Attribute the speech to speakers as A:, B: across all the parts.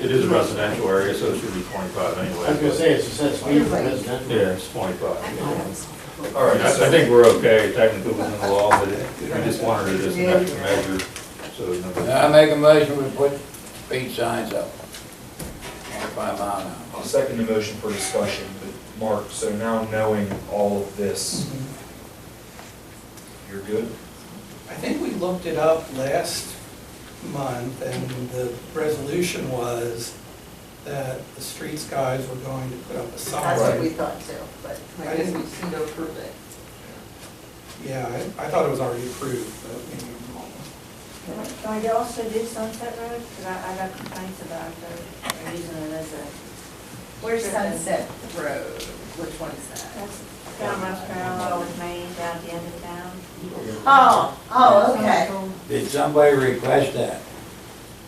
A: It is a residential area, so it should be twenty-five anyway.
B: I was gonna say, it's accessory for residential.
A: Yeah, it's twenty-five.
C: All
A: All right, I I think we're okay technically within the law, but it- we just wanted it as an extra measure, so. it never-
D: I make a motion, we put speed signs up. Twenty-five mile an hour.
E: I'll second the motion for discussion, but Mark, so now knowing all of this, you're good?
F: I think we looked it up last month, and the resolution was that the streets guys were going to put up a
C: That's what
F: sign.
C: we thought too, but I guess we seem to approve it.
F: Yeah, I, I thought it was already approved, but maybe I'm wrong.
G: Well, you also did Sunset Road, because I, I got complaints about the, the using it as a,
C: Where's Sunset Road? Which one is that?
G: that's down Rouse Parallel with Maine, down at the end of town.
C: Oh, oh, okay.
D: Did somebody request that?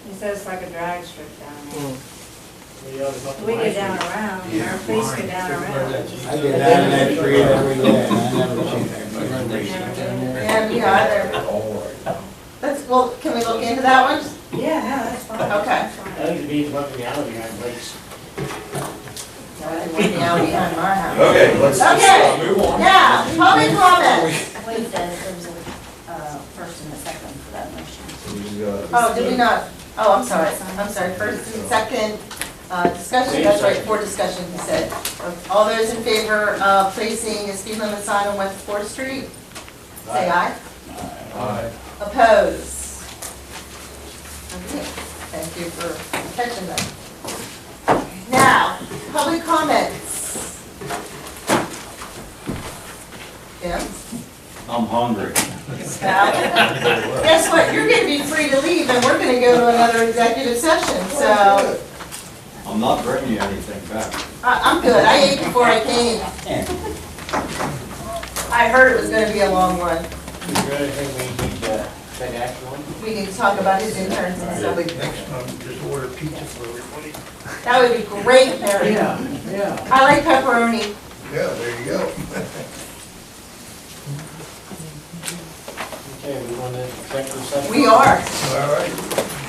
G: It says like a drag strip down there.
B: Yeah, it's up to
G: We
B: my
G: go down
B: street.
G: around, our police go down around.
D: I get out of that tree every day, and I never seen
C: Yeah,
D: that.
C: me either.
E: All right.
C: Let's, well, can we look into that one?
G: Yeah, no, that's fine.
C: Okay.
G: that's
B: I
G: fine.
B: think the bees left me out of behind lakes.
C: No, they went down behind my house.
E: Okay, let's just uh,
C: Okay.
E: move on.
C: Yeah, public comment.
H: Wait, there- there's a uh, first and a second for that motion.
E: So we uh, just gotta-
C: Oh, did we not? Oh, I'm sorry, I'm sorry. First and second, uh, discussion, that's right, for discussion, he said. All those in favor of placing a speed limit sign on West Fourth Street? Say aye.
E: Aye.
C: Oppose? Okay, thank you for catching that. Now, public comments. Yeah?
I: I'm hungry.
C: Now, Guess what, you're gonna be free to leave, and we're gonna go to another executive session, so
I: I'm not bringing anything back.
C: I- I'm good, I ate before I came. I heard it was gonna be a long one,
B: You really think we need to take action on? it?
C: we need to talk about his interns and stuff.
J: Next time, just order pizza for everybody.
C: That would be great, Mary.
D: yeah.
C: I like pepperoni.
J: Yeah, there you go.
B: Okay, we want to executive session?
C: We are.
J: All right.